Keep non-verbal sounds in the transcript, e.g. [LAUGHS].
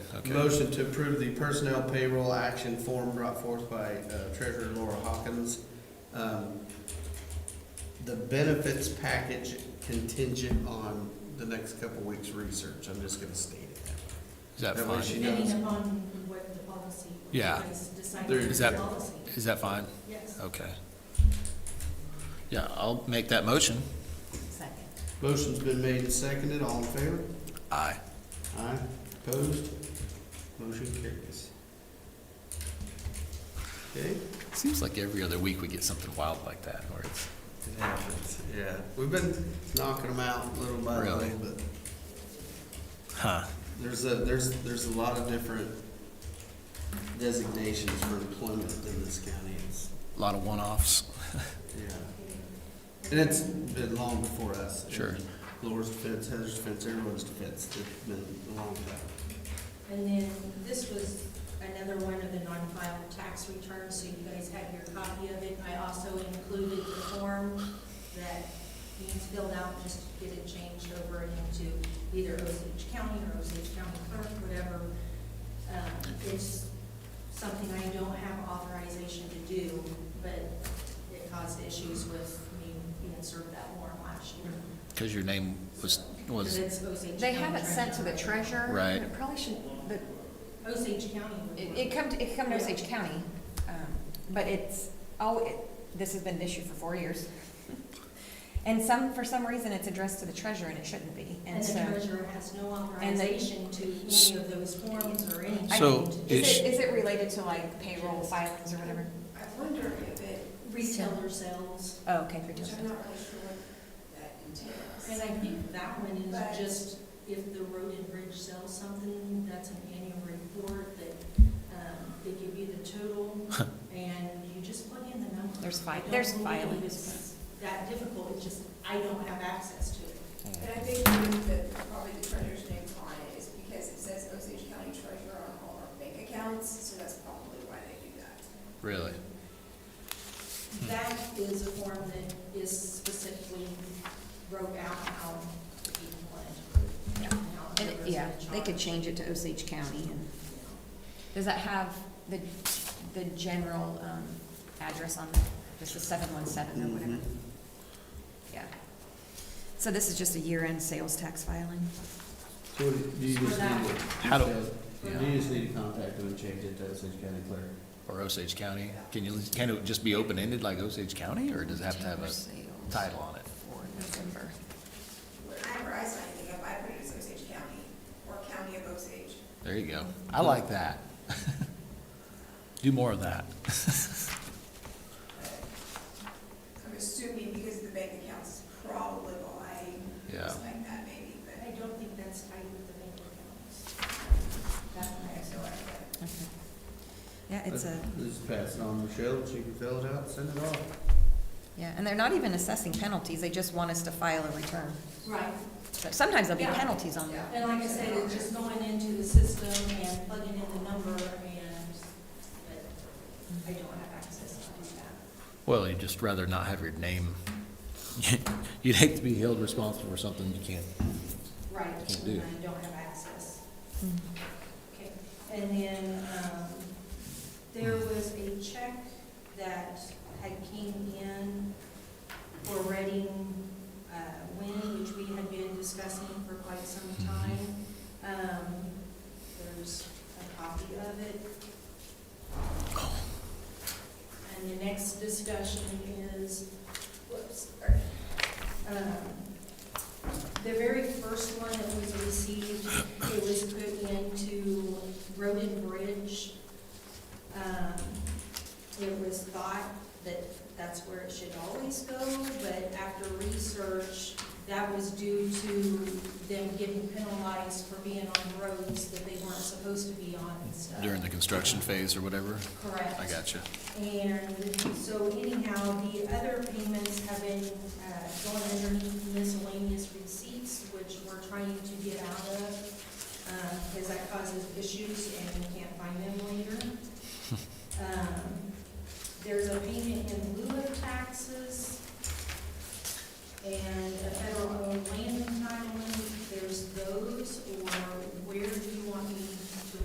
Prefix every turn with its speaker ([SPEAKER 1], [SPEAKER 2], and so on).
[SPEAKER 1] Okay.
[SPEAKER 2] Motion to approve the personnel payroll action form brought forth by uh, Treasurer Laura Hawkins. Um, The benefits package contingent on the next couple weeks' research, I'm just gonna state it. that
[SPEAKER 1] Is that
[SPEAKER 2] That way
[SPEAKER 1] fine?
[SPEAKER 2] she knows.
[SPEAKER 3] Depending upon what the policy.
[SPEAKER 1] Yeah.
[SPEAKER 3] is Decided
[SPEAKER 2] There-
[SPEAKER 3] to
[SPEAKER 1] Is
[SPEAKER 3] be
[SPEAKER 1] that-
[SPEAKER 3] policy,
[SPEAKER 1] Is that fine?
[SPEAKER 3] yes.
[SPEAKER 1] Okay. Yeah, I'll make that motion.
[SPEAKER 3] Second.
[SPEAKER 2] Motion's been made and seconded, all in favor?
[SPEAKER 1] Aye.
[SPEAKER 2] Aye. Opposed? Motion carries. Okay?
[SPEAKER 1] Seems like every other week we get something wild like that, where it's,
[SPEAKER 2] It happens, yeah. We've been knocking them out little by little,
[SPEAKER 1] Really?
[SPEAKER 2] but
[SPEAKER 1] huh,
[SPEAKER 2] there's a, there's, there's a lot of different designations for employment in this county. It's,
[SPEAKER 1] a lot of one-offs.
[SPEAKER 2] yeah. And it's been long before us.
[SPEAKER 1] Sure.
[SPEAKER 2] Laura's defense, Heather's defense, everyone's defense. It's been a long time.
[SPEAKER 4] And then this was another one of the non-filed tax returns, so you guys have your copy of it. I also included the form that needs filled out, just to get it changed over into either Osage County or Osage County Clerk, whatever. Um, It's something I don't have authorization to do, but it caused issues with me being served that warrant last year.
[SPEAKER 1] Because your name was,
[SPEAKER 4] Because
[SPEAKER 1] was,
[SPEAKER 4] it's Osage County.
[SPEAKER 5] They have it sent to the
[SPEAKER 4] Treasurer.
[SPEAKER 5] treasurer.
[SPEAKER 1] Right.
[SPEAKER 5] and It probably should, but
[SPEAKER 4] Osage County. would-
[SPEAKER 5] it, it come, to- it come to Osage County, um, but it's, oh, it, this has been an issue for four years. And some, for some reason, it's addressed to the treasurer and it shouldn't be,
[SPEAKER 4] And the
[SPEAKER 5] and so.
[SPEAKER 4] treasurer has no
[SPEAKER 5] And the-
[SPEAKER 4] authorization to any of those forms or anything.
[SPEAKER 5] I-
[SPEAKER 1] So,
[SPEAKER 5] Is
[SPEAKER 1] it's-
[SPEAKER 5] it, is it related to like payroll filings or whatever?
[SPEAKER 6] I wonder if it,
[SPEAKER 4] Retailer sales,
[SPEAKER 5] Oh, okay, three
[SPEAKER 6] which
[SPEAKER 5] times.
[SPEAKER 6] I'm not really sure what that entails.
[SPEAKER 4] and I think that one
[SPEAKER 6] But-
[SPEAKER 4] is just if the road and bridge sells something, that's an annual report that, um, they give you the total and you just plug in the number.
[SPEAKER 5] There's fi-
[SPEAKER 4] I don't
[SPEAKER 5] there's
[SPEAKER 4] believe
[SPEAKER 5] filings.
[SPEAKER 4] it's That difficult, it's just I don't have access to it.
[SPEAKER 6] And
[SPEAKER 1] oh,
[SPEAKER 6] I think the reason that probably the treasurer's name on it is because it says Osage County Treasurer on all our bank accounts, so that's probably why they do that.
[SPEAKER 1] really?
[SPEAKER 4] That is a form that is specifically broke out how you want it.
[SPEAKER 5] Yeah. And it- yeah, they could change it to Osage County and, does that have the, the general, um, address on, this is seven one seven or
[SPEAKER 1] Mm-hmm.
[SPEAKER 5] whatever?
[SPEAKER 2] Mhm.
[SPEAKER 5] Yeah. So this is just a year-end sales tax filing?
[SPEAKER 2] So what do you
[SPEAKER 4] For
[SPEAKER 2] just need
[SPEAKER 4] that.
[SPEAKER 2] to?
[SPEAKER 1] How do-
[SPEAKER 2] Do you just need to contact them and change it to Osage County Clerk?
[SPEAKER 1] Or Osage County? Can you, can it just be open-ended like Osage County, or does it have to have a title on it?
[SPEAKER 5] For November.
[SPEAKER 6] Whenever I sign anything up, I put it as Osage County or County of Osage.
[SPEAKER 1] There you go. I like that. [LAUGHS] Do more of that.
[SPEAKER 6] I'm assuming because the bank accounts is probably why,
[SPEAKER 1] Yeah.
[SPEAKER 6] something like that maybe, but
[SPEAKER 4] I don't think that's tied with the bank accounts. That's
[SPEAKER 6] I
[SPEAKER 4] my
[SPEAKER 6] have no idea.
[SPEAKER 5] Okay. Yeah, it's a,
[SPEAKER 2] Just pass it on to Michelle, she can fill it out, send it off.
[SPEAKER 5] yeah, and they're not even assessing penalties, they just want us to file a return.
[SPEAKER 4] Right,
[SPEAKER 5] So Sometimes there'll be
[SPEAKER 4] Yeah.
[SPEAKER 5] penalties on that.
[SPEAKER 4] and like I said, it's just going into the system and plugging in the number and, but I don't have access to do that.
[SPEAKER 1] Well, you'd just rather not have your name, [LAUGHS] you'd hate to be held responsible for something you can't.
[SPEAKER 4] Right,
[SPEAKER 1] Can't do.
[SPEAKER 4] and I don't have access.
[SPEAKER 5] Mhm.
[SPEAKER 4] Okay, and then, um, there was a check that had came in for Reading, uh, Wind, which we had been discussing for quite some time. Um, there's a copy of it. And the next discussion is, whoops, sorry. Um, The very first one that was received, it was put into Road and Bridge. Um, It was thought that that's where it should always go, but after research, that was due to them getting penalized for being on roads that they weren't supposed to be on and stuff.
[SPEAKER 1] During the construction phase or whatever?
[SPEAKER 4] Correct.
[SPEAKER 1] I got you.
[SPEAKER 4] And so anyhow, the other payments have been uh, going underneath miscellaneous receipts, which we're trying to get out of, because that causes issues and we can't find them later. Um, There's a payment in lieu of taxes and a federal owned land entitlement. There's those, or where do you want me